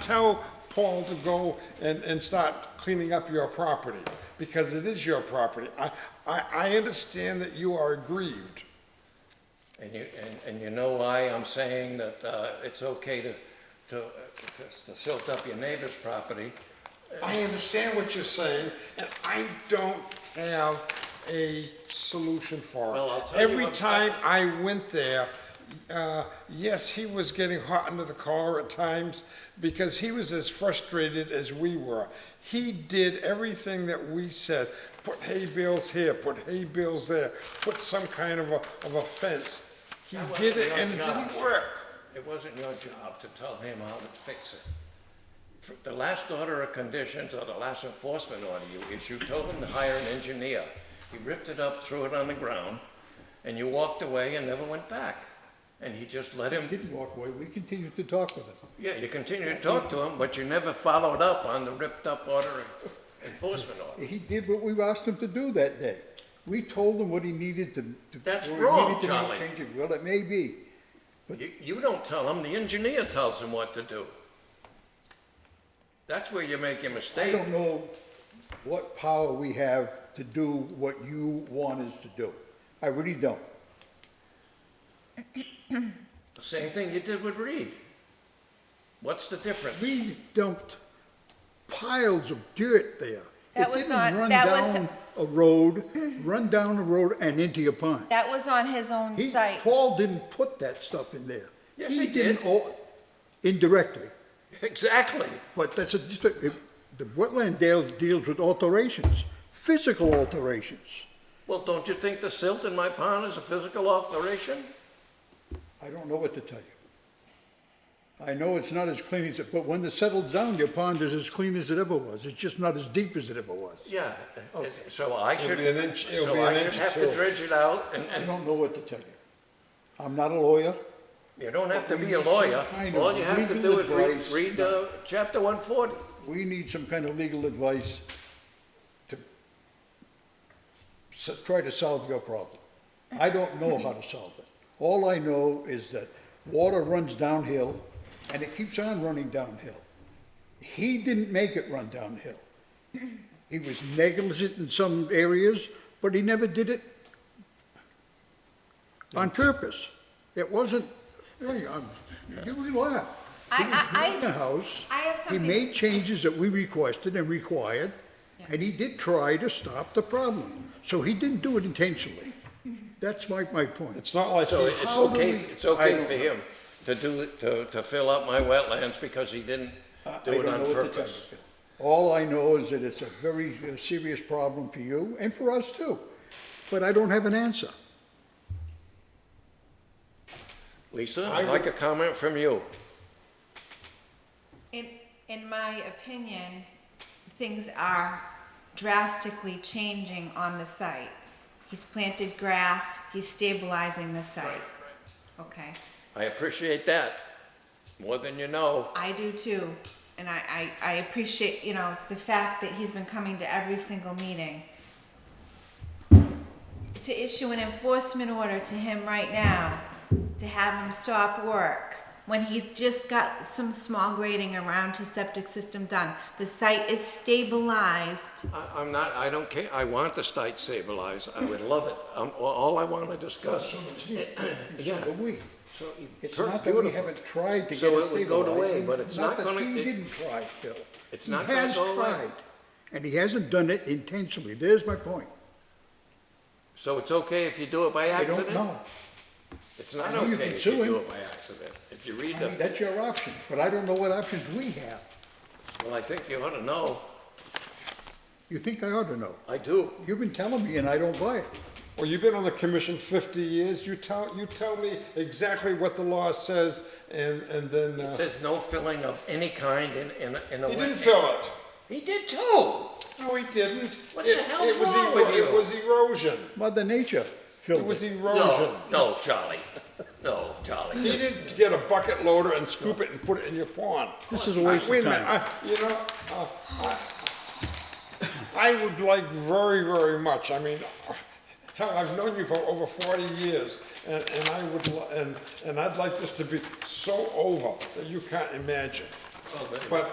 tell Paul to go and, and start cleaning up your property, because it is your property. I, I, I understand that you are aggrieved. And you, and, and you know why I'm saying that, uh, it's okay to, to, uh, to to silt up your neighbor's property? I understand what you're saying, and I don't have a solution for it. Well, I'll tell you Every what- time I went there, uh, yes, he was getting hot under the collar at times because he was as frustrated as we were. He did everything that we said, put hay bales here, put hay bales there, put some kind of a, of a fence. He That wasn't did it your and it job. didn't work. It wasn't your job to tell him how to fix it. For- The last order of conditions or the last enforcement order you issued told him to hire an engineer. He ripped it up, threw it on the ground, and you walked away and never went back. And he just let him, Didn't walk away, we continued to talk with him. yeah, you continued to talk to him, but you never followed up on the ripped up order of enforcement order. He did what we asked him to do that day. We told him what he needed to. to- That's what he wrong, needed to make Charlie. changes. Well, it may be. You, you don't tell them, the engineer tells them what to do. That's where you make your I mistake. don't know what power we have to do what you want us to do. I really don't. The Same thing you did with Reed. What's the difference? We dumped piles of dirt there. That was not- It that didn't run down was- a road, run down a road and into your pond. That was on his own He, site. Paul didn't put that stuff in there. Yes, he didn't did. o- Indirectly. Exactly. But that's a, district- it- the wetland deals, deals with alterations, physical alterations. Well, don't you think the silt in my pond is a physical alteration? I don't know what to tell you. I know it's not as clean as, it, but when it settles down, your pond is as clean as it ever was. It's just not as deep as it ever was. Yeah. Uh, So I It'll should, be an inch- it'll be so an I should inch have tall. to dredge it out and, I and don't know what to tell you. I'm not a lawyer. you don't have to We be a need some lawyer. kind of All you have to legal do is advice. read, read, uh, chapter one forty. We need some kind of legal advice to s- try to solve your problem. I don't know how to solve it. All I know is that water runs downhill and it keeps on running downhill. He didn't make it run downhill. He was negligent in some areas, but he never did it on purpose. It wasn't, Hey, I'm- you can laugh. He I- was I- I- building a house. I have something He to made changes that we requested and required, and he did try to stop the problem. So he didn't do it intentionally. That's my, my point. It's not like So he it's How do okay, we- it's I okay don't for know. him to do, to, to fill up my wetlands because he didn't I- I do it don't know on what to tell purpose. you. All I know is that it's a very uh, serious problem for you and for us too, but I don't have an answer. Lisa, I I'd like a comment from you. In, in my opinion, things are drastically changing on the site. He's planted grass, he's stabilizing the site. Okay, I appreciate that, more than you know. I do too, and I, I, I appreciate, you know, the fact that he's been coming to every single meeting. To issue an enforcement order to him right now, to have him stop work, when he's just got some small grading around his septic system done. The site is stabilized. I, I'm not, I don't care, I want the site stabilized, I would love it. Um, all- all I want to discuss, So do we. so, It's per- not that we beautiful. haven't tried to get it So stabilized. it would go away, but it's not that gonna- He it- didn't try, Bill. It's not gonna go away. He has tried, and he hasn't done it intentionally. There's my point. so it's okay if you do it by I accident? don't know. It's not I know you okay can if sue you do him. it by accident. If you read I mean, the, that's your option, but I don't know what options we have. well, I think you ought to know, You think I ought to know. I do. You've been telling me and I don't buy it. Well, you've been on the commission 50 years. You tell, you tell me exactly what the law says and, and then, It uh, says no filling of any kind in, in, a- in a. he wet- didn't fill it. He did too. No, he didn't. What the It- hell's it was wrong ero- with you? It was erosion. Mother Nature It filled was it. erosion. No, no, Charlie. No, Charlie. He didn't get a bucket loader and scoop it and put it in your pond. This is a waste of Wait a minute, time. I- you know, uh, I, I would like very, very much, I mean, hell, I've known you for over forty years, and, and I would, li- and, and I'd like this to be so over that you can't imagine. Well, but- But